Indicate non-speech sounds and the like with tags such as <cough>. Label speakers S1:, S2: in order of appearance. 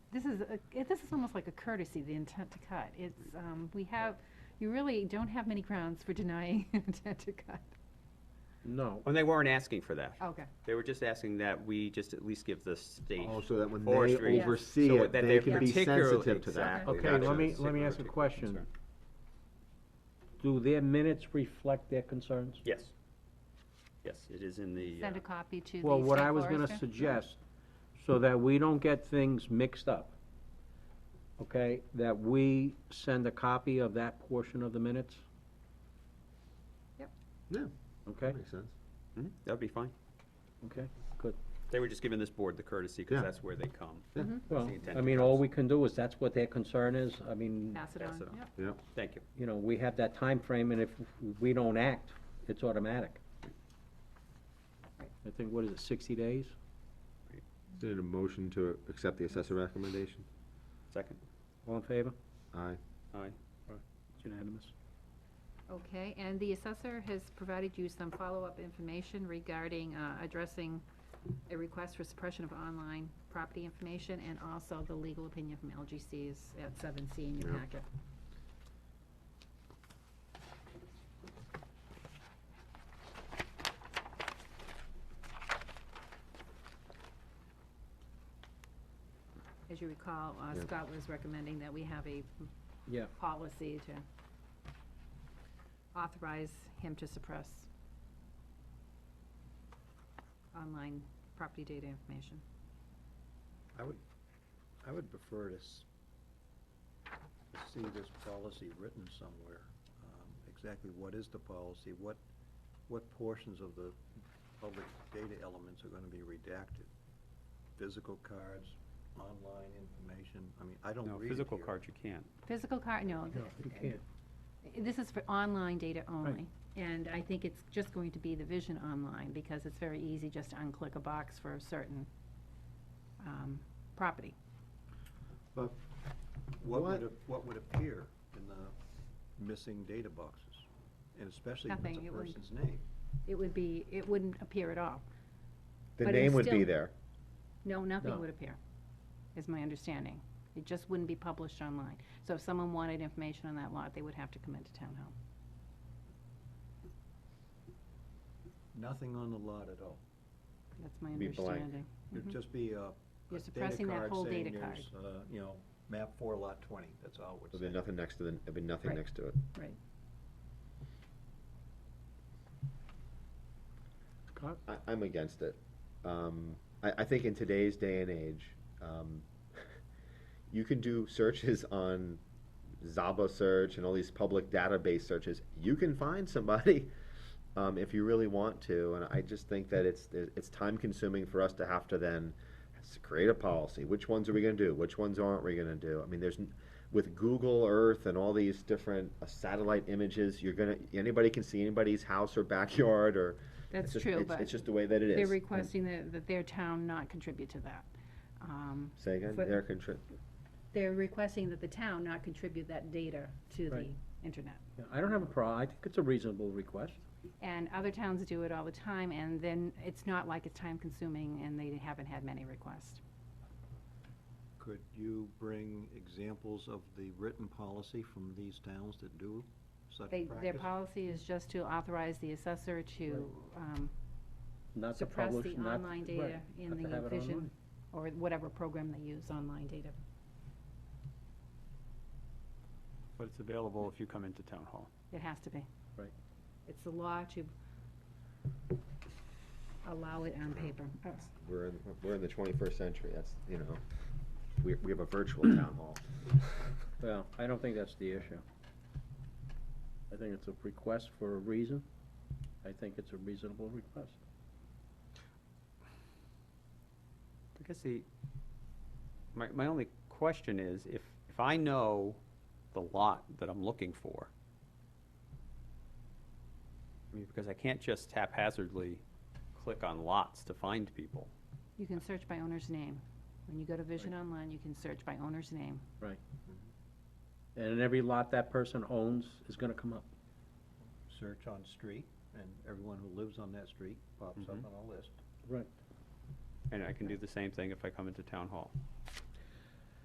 S1: this is, a- it- this is almost like a courtesy, the intent to cut. It's, um, we have, you really don't have many grounds for denying <laughs> intent to cut.
S2: No.
S3: And they weren't asking for that.
S1: Okay,
S3: They were just asking that we just at least give the state.
S4: Oh, so that when they
S3: Forestry.
S1: Yeah.
S4: oversee
S3: So
S4: it,
S3: that
S4: they
S3: they're
S4: can be
S3: particularly-
S4: sensitive to that.
S3: exactly,
S2: Okay,
S3: that's
S2: let
S3: a
S2: me, let me ask a
S3: particular
S2: question.
S3: concern.
S2: Do their minutes reflect their concerns?
S3: Yes. Yes, it is in the, uh,
S1: send a copy to the state
S2: Well, what I was gonna
S1: forester.
S2: suggest, so that we don't get things mixed up, okay, that we send a copy of that portion of the minutes,
S4: Yeah,
S2: okay?
S4: that makes sense.
S3: mhm, that'd be fine.
S2: Okay, good.
S3: They were just giving this board the courtesy
S4: Yeah.
S3: because that's where they come.
S1: Mm-hmm.
S2: Well,
S3: the intent
S2: I
S3: of
S2: mean, all
S3: council.
S2: we can do is, that's what their concern is, I mean,
S1: Pass it
S3: Pass
S1: on,
S3: it on.
S1: yep.
S4: Yeah,
S3: Thank you.
S2: you know, we have that time frame, and if we don't act, it's automatic. I think, what is it, sixty days?
S4: did a motion to accept the assessor recommendation?
S3: Second.
S2: All in favor?
S4: Aye.
S3: Aye.
S2: It's unanimous.
S1: Okay, and the assessor has provided you some follow-up information regarding uh, addressing a request for suppression of online property information and also the legal opinion from LGC is at seven C in your
S4: Yeah.
S1: packet. As you recall, uh,
S4: Yeah.
S1: Scott was recommending that we have a
S2: Yeah.
S1: policy to authorize him to suppress online property data information.
S5: I would, I would prefer to s- to see this policy written somewhere. Um, Exactly what is the policy? What, what portions of the public data elements are gonna be redacted? Physical cards, online information? I mean, I don't
S3: No,
S5: read it
S3: physical
S5: here.
S3: card you can't.
S1: Physical card, no, th- this is for online data only. And I think it's just going to be the vision online, because it's very easy just to unclick a box for a certain um, property.
S5: What
S4: What?
S5: would, ap- what would appear in the missing data boxes? And especially if it's
S1: Nothing, it
S5: a
S1: wouldn't-
S5: person's name.
S1: It would be, it wouldn't appear at all.
S4: The
S1: But
S4: name
S1: it's
S4: would be
S1: still-
S4: there.
S1: No, nothing
S2: No.
S1: would appear, is my understanding. It just wouldn't be published online. So if someone wanted information on that lot, they would have to come into town hall.
S5: Nothing on the lot at all.
S1: That's my
S4: Be blank.
S1: understanding.
S5: It'd
S1: Mhm.
S5: just be a
S1: You're
S5: a data
S1: suppressing that
S5: card
S1: whole
S5: saying
S1: data card.
S5: there's, uh, You know, map four lot twenty, that's all it would
S4: There'd be
S5: say.
S4: nothing next to the, there'd be nothing
S1: Right.
S4: next to it.
S1: Right.
S2: Scott?
S4: I, I'm against it. Um, I, I think in today's day and age, um, <laughs> you can do searches on Zaba search and all these public database searches. You can find somebody <laughs> um, if you really want to, and I just think that it's it's time consuming for us to have to then s- create a policy. Which ones are we going to do? Which ones aren't we going to do? I mean, there's n- with Google Earth and all these different uh, satellite images, you're gonna anybody can see anybody's house or backyard or
S1: That's
S4: it's just-
S1: true,
S4: it's-
S1: but
S4: It's just the way that it is.
S1: they're
S4: And-
S1: requesting that, that their town not contribute to that. Um,
S4: Say again,
S1: for-
S4: they're contri-
S1: They're requesting that the town not contribute that data to the
S2: Right.
S1: internet.
S2: Yeah, I don't have a problem, I think it's a reasonable request.
S1: And other towns do it all the time, and then it's not like it's time consuming, and they haven't had many requests.
S5: Could you bring examples of the written policy from these towns that do such
S1: They, their
S5: practice?
S1: policy is just to authorize the assessor to, um,
S2: Not to
S1: suppress
S2: publish,
S1: the
S2: not-
S1: online data
S2: right,
S1: in
S2: not to have
S1: the
S2: it
S1: vision,
S2: online.
S1: or whatever program they use, online data.
S3: But it's available if you come into town hall.
S1: It has to be.
S2: Right.
S1: It's the law to allow it on paper.
S4: we're in, we're in the twenty-first century, that's, you know, we, we have a virtual town hall.
S2: Well, I don't think that's the issue. I think it's a request for a reason. I think it's a reasonable request.
S3: I guess the, my, my only question is, if, if I know the lot that I'm looking for, I mean, because I can't just haphazardly click on lots to find people.
S1: You can search by owner's name. When you go to Vision Online, you can search by owner's name.
S2: And every lot that person owns is gonna come up.
S5: Search on street, and everyone who lives on that
S2: Mm-hmm.
S5: street pops up
S3: Mhm.
S5: on a list.
S2: Right.
S3: And I can do the same thing if I come into town hall.